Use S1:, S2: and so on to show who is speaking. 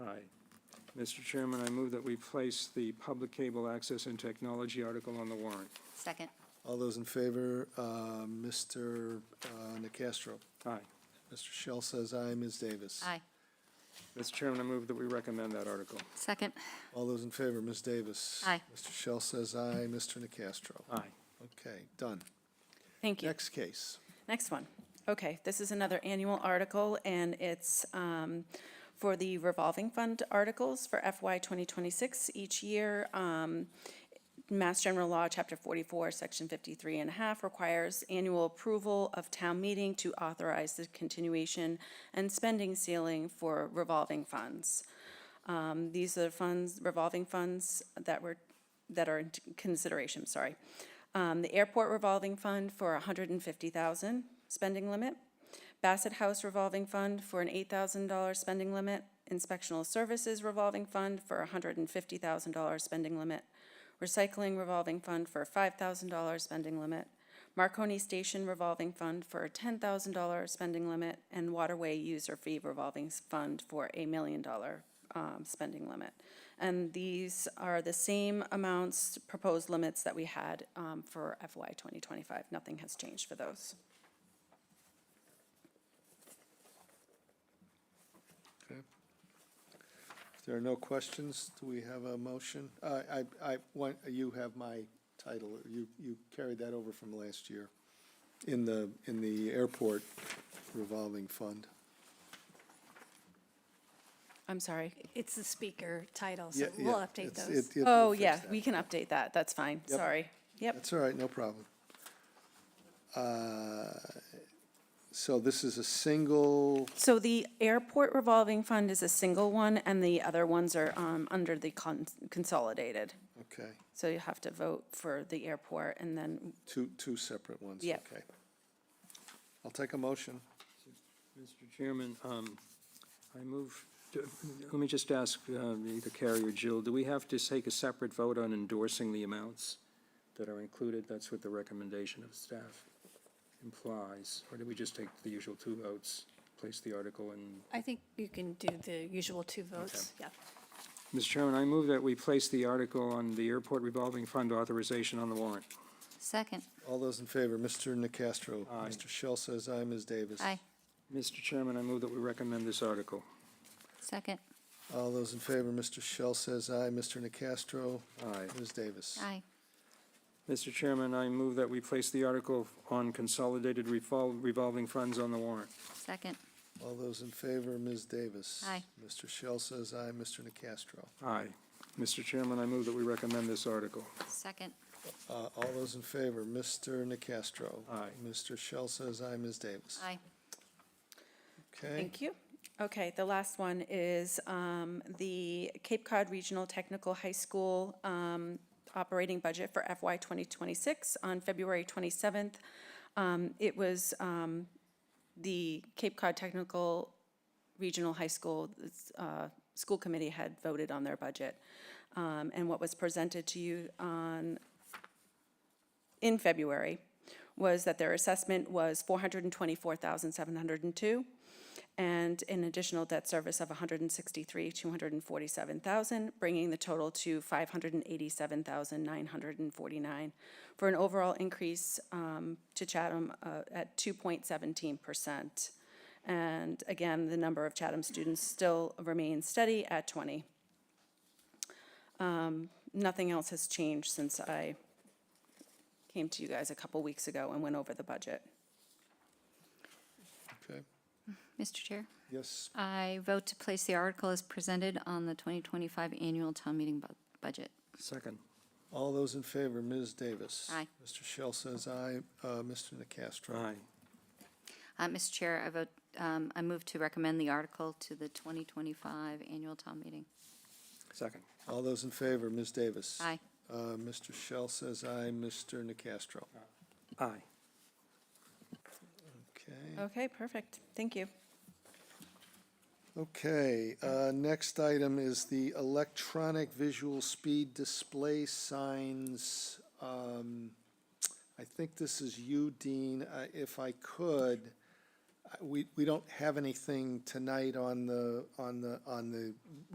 S1: Mr. Chairman, I move that we place the Public Cable Access and Technology article on the warrant.
S2: Second.
S3: All those in favor, uh, Mr. uh, Nacastro?
S1: Aye.
S3: Mr. Shell says aye, Ms. Davis.
S2: Aye.
S1: Mr. Chairman, I move that we recommend that article.
S2: Second.
S3: All those in favor, Ms. Davis.
S2: Aye.
S3: Mr. Shell says aye, Mr. Nacastro.
S1: Aye.
S3: Okay, done.
S4: Thank you.
S3: Next case.
S4: Next one. Okay, this is another annual article, and it's um, for the revolving fund articles for FY 2026. Each year, um, Mass General Law, Chapter 44, Section 53 and a half requires annual approval of town meeting to authorize the continuation and spending ceiling for revolving funds. Um, These are funds, revolving funds that were, that are in consideration, sorry. Um, The airport revolving fund for 150,000 spending limit. Bassett House revolving fund for an $8,000 spending limit. Inspectional services revolving fund for $150,000 spending limit. Recycling revolving fund for a $5,000 spending limit. Marconi Station revolving fund for a $10,000 spending limit. And waterway user fee revolving s- fund for a million dollar um, spending limit. And these are the same amounts, proposed limits that we had um, for FY 2025. Nothing has changed for those.
S3: If there are no questions, do we have a motion? Uh, I, I, want- you have my title, you, you carried that over from last year in the, in the airport revolving fund.
S4: I'm sorry.
S5: It's the speaker title, so
S3: Yeah,
S5: we'll
S3: yeah,
S5: update
S3: it's-
S5: those.
S3: it- it-
S4: Oh,
S3: we'll fix
S4: yeah,
S3: that.
S4: we can update that. That's fine.
S3: Yep.
S4: Sorry. Yep.
S3: That's all right, no problem. Uh, So this is a single,
S4: So the airport revolving fund is a single one, and the other ones are um, under the con- consolidated.
S3: okay,
S4: So you have to vote for the airport, and then,
S3: two, two separate ones,
S4: Yep.
S3: okay. I'll take a motion.
S1: Mr. Chairman, um, I move, to- let me just ask uh, either Carrie or Jill, do we have to take a separate vote on endorsing the amounts that are included? That's what the recommendation of staff implies. Or do we just take the usual two votes, place the article and
S5: I think you can do the usual two votes, yeah.
S1: Mr. Chairman, I move that we place the article on the airport revolving fund authorization on the warrant.
S2: Second.
S3: All those in favor, Mr. Nacastro.
S1: Aye.
S3: Mr. Shell says aye, Ms. Davis.
S2: Aye.
S1: Mr. Chairman, I move that we recommend this article.
S2: Second.
S3: All those in favor, Mr. Shell says aye, Mr. Nacastro.
S1: Aye.
S3: Ms. Davis.
S2: Aye.
S1: Mr. Chairman, I move that we place the article on consolidated revol- revolving funds on the warrant.
S2: Second.
S3: All those in favor, Ms. Davis.
S2: Aye.
S3: Mr. Shell says aye, Mr. Nacastro.
S1: Aye. Mr. Chairman, I move that we recommend this article.
S2: Second.
S3: Uh, All those in favor, Mr. Nacastro.
S1: Aye.
S3: Mr. Shell says aye, Ms. Davis.
S2: Aye.
S3: Okay,
S4: thank you. Okay, the last one is um, the Cape Cod Regional Technical High School um, operating budget for FY 2026 on February 27th. Um, It was um, the Cape Cod Technical Regional High School, it's, uh, school committee had voted on their budget. Um, And what was presented to you on in February was that their assessment was 424,702 and an additional debt service of 163,247,000, bringing the total to 587,949 for an overall increase um, to Chatham uh, at 2.17%. And again, the number of Chatham students still remains steady at 20. Um, Nothing else has changed since I came to you guys a couple weeks ago and went over the budget.
S3: okay,
S2: Mr. Chair,
S3: yes,
S2: I vote to place the article as presented on the 2025 annual town meeting bu- budget.
S1: Second.
S3: all those in favor, Ms. Davis.
S2: Aye.
S3: Mr. Shell says aye, Uh, Mr. Nacastro.
S1: Aye.
S2: Uh, Mr. Chair, I vote, um, I move to recommend the article to the 2025 annual town meeting.
S1: Second.
S3: All those in favor, Ms. Davis.
S2: Aye.
S3: Uh, Mr. Shell says aye, Mr. Nacastro.
S1: Aye.
S2: Oh.
S3: Okay,
S4: Okay, perfect. Thank you.
S3: okay, uh, next item is the electronic visual speed display signs. Um, I think this is you, Dean, I- if I could, I- we, we don't have anything tonight on the, on the, on the